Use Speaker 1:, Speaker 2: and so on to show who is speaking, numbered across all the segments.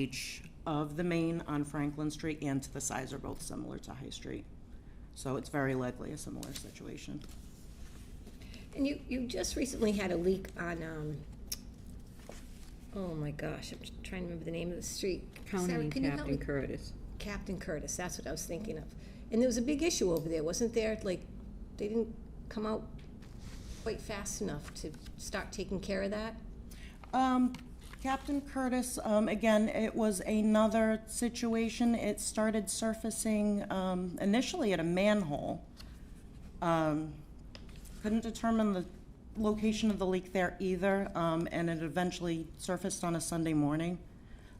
Speaker 1: age of the main on Franklin Street and to the size are both similar to High Street. So it's very likely a similar situation.
Speaker 2: And you, you just recently had a leak on, um, oh my gosh, I'm just trying to remember the name of the street. Sarah,
Speaker 3: Conan
Speaker 2: can
Speaker 3: and
Speaker 2: you help
Speaker 3: Captain
Speaker 2: me?
Speaker 3: Curtis.
Speaker 2: Captain Curtis, that's what I was thinking of. And there was a big issue over there, wasn't there? Like, they didn't come out quite fast enough to start taking care of that?
Speaker 1: Um, Captain Curtis, um, again, it was another situation. It started surfacing, um, initially at a manhole. Um, couldn't determine the location of the leak there either, um, and it eventually surfaced on a Sunday morning,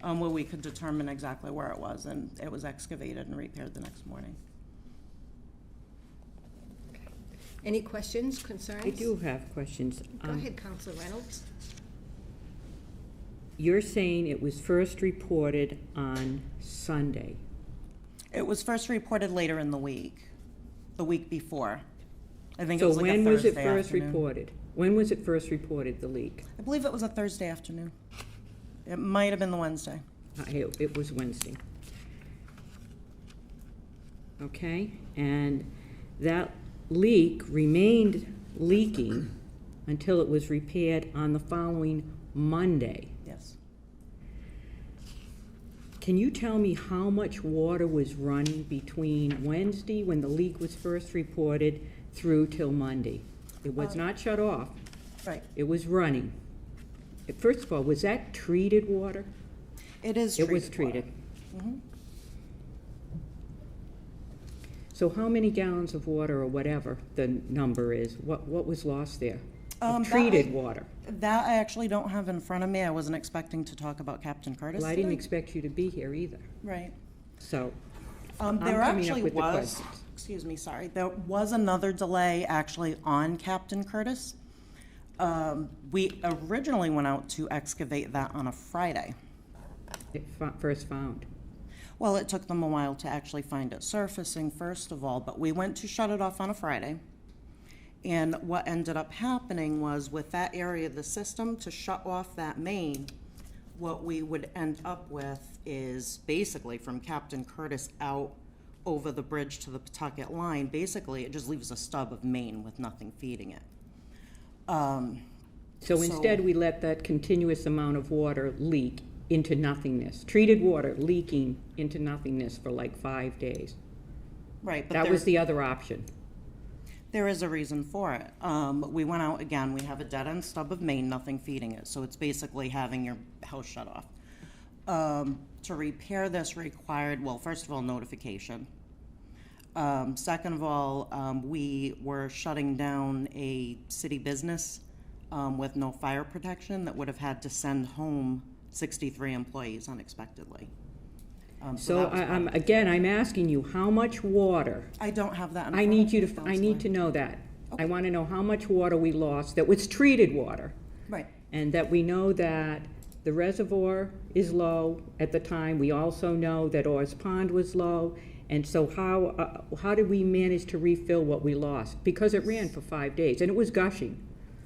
Speaker 1: um, where we could determine exactly where it was, and it was excavated and repaired the next morning.
Speaker 2: Any questions, concerns?
Speaker 3: I do have questions.
Speaker 2: Go
Speaker 3: Um,
Speaker 2: ahead, Counselor Reynolds.
Speaker 3: You're saying it was first reported on Sunday.
Speaker 1: It was first reported later in the week, the week before. I think it
Speaker 3: So
Speaker 1: was like a
Speaker 3: when was
Speaker 1: Thursday
Speaker 3: it first
Speaker 1: afternoon.
Speaker 3: reported? When was it first reported, the leak?
Speaker 1: I believe it was a Thursday afternoon. It might have been the Wednesday.
Speaker 3: Uh, It it was Wednesday. Okay, and that leak remained leaking until it was repaired on the following Monday.
Speaker 1: Yes.
Speaker 3: Can you tell me how much water was running between Wednesday, when the leak was first reported, through till Monday? It
Speaker 1: Um,
Speaker 3: was not shut off,
Speaker 1: Right.
Speaker 3: it was running. First of all, was that treated water?
Speaker 1: It is
Speaker 3: It
Speaker 1: treated. Mm-hmm.
Speaker 3: was treated. So how many gallons of water or whatever the number is, what, what was lost there? of
Speaker 1: Um, that-
Speaker 3: Treated water.
Speaker 1: water. That I actually don't have in front of me. I wasn't expecting to talk about Captain Curtis
Speaker 3: Well, I didn't
Speaker 1: today.
Speaker 3: expect you to be here either,
Speaker 1: Right.
Speaker 3: so.
Speaker 1: Um,
Speaker 3: I'm
Speaker 1: there
Speaker 3: coming up
Speaker 1: actually
Speaker 3: with the
Speaker 1: was,
Speaker 3: questions.
Speaker 1: excuse me, sorry, there was another delay actually on Captain Curtis. Um, we originally went out to excavate that on a Friday.
Speaker 3: It fo- first found.
Speaker 1: Well, it took them a while to actually find it surfacing, first of all, but we went to shut it off on a Friday. And what ended up happening was with that area of the system to shut off that main, what we would end up with is basically from Captain Curtis out over the bridge to the Pawtucket line, basically it just leaves a stub of main with nothing feeding it.
Speaker 3: So instead, we let that continuous amount of water leak into nothingness. Treated water leaking into nothingness for like five days.
Speaker 1: Right, but
Speaker 3: That was
Speaker 1: there's,
Speaker 3: the other option.
Speaker 1: there is a reason for it. Um, we went out again, we have a dead end stub of main, nothing feeding it, so it's basically having your house shut off. Um, to repair this required, well, first of all, notification. Um, second of all, um, we were shutting down a city business, um, with no fire protection that would have had to send home sixty-three employees unexpectedly. Um,
Speaker 3: So
Speaker 1: that was-
Speaker 3: I, I'm, again, I'm asking you, how much water?
Speaker 1: I don't have that in
Speaker 3: I
Speaker 1: front
Speaker 3: need
Speaker 1: of
Speaker 3: you
Speaker 1: me,
Speaker 3: to, I
Speaker 1: Counselor.
Speaker 3: need to know that. I want to know how much water we lost that was treated water.
Speaker 1: Right,
Speaker 3: And that we know that the reservoir is low at the time. We also know that Orr's Pond was low. And so how, uh, how did we manage to refill what we lost? Because it ran for five days and it was gushing,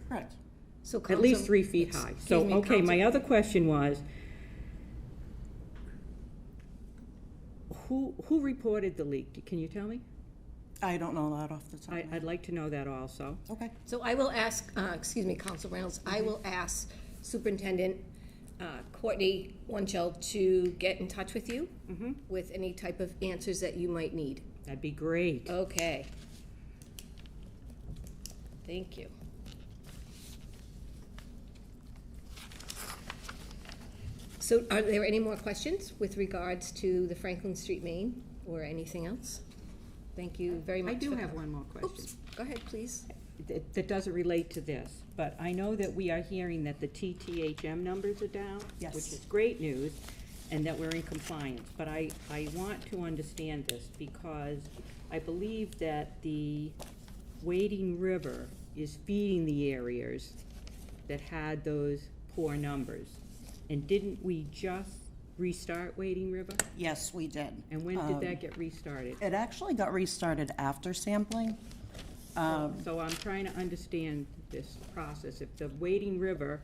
Speaker 1: correct.
Speaker 2: So
Speaker 3: at least
Speaker 2: Counsel-
Speaker 3: three feet high. So,
Speaker 2: Excuse me,
Speaker 3: okay, my
Speaker 2: Counsel-
Speaker 3: other question was, who, who reported the leak? Can you tell me?
Speaker 1: I don't know that off the top. of
Speaker 3: I,
Speaker 1: my-
Speaker 3: I'd like to know that also.
Speaker 1: Okay,
Speaker 2: So I will ask, uh, excuse me, Counsel Reynolds, I will ask Superintendent uh, Courtney Wunschel to get in touch with you
Speaker 3: Mm-hmm.
Speaker 2: with any type of answers that you might need.
Speaker 3: That'd be great.
Speaker 2: Okay. Thank you. So are there any more questions with regards to the Franklin Street main or anything else? Thank you very
Speaker 3: I
Speaker 2: much.
Speaker 3: do
Speaker 2: for
Speaker 3: have
Speaker 2: co-
Speaker 3: one more question.
Speaker 2: Oops, go ahead, please.
Speaker 3: That, that doesn't relate to this, but I know that we are hearing that the TTHM numbers are down. Which
Speaker 1: Yes.
Speaker 3: is great news, and that we're in compliance. But I, I want to understand this because I believe that the Wading River is feeding the areas that had those poor numbers. And didn't we just restart Wading River?
Speaker 1: yes, we did. Um,
Speaker 3: And when did that get restarted?
Speaker 1: It actually got restarted after sampling.
Speaker 3: So I'm trying to understand this process. If the Wading River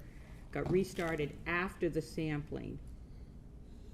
Speaker 3: got restarted after the sampling,